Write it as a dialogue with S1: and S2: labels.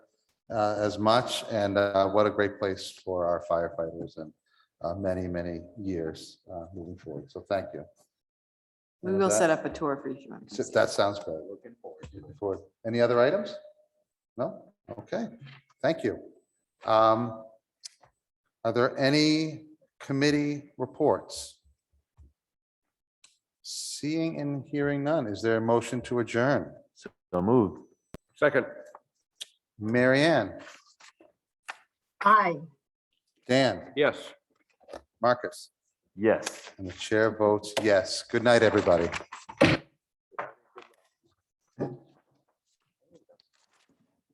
S1: uh, as much. And uh, what a great place for our firefighters and uh, many, many years uh, moving forward. So thank you.
S2: We
S1: And
S2: will
S1: that-
S2: set up a tour for you. if you want to come
S1: so
S2: see
S1: That sounds great. Looking forward. Looking forward. Any other items? No? Okay, thank you. Um, Are there any committee reports? Seeing and hearing none, is there a motion to adjourn?
S3: So moved.
S4: Second.
S1: Mary Ann,
S5: Aye.
S1: Dan,
S4: Yes.
S1: Marcus,
S3: Yes.
S1: and the chair votes yes. Good night, everybody.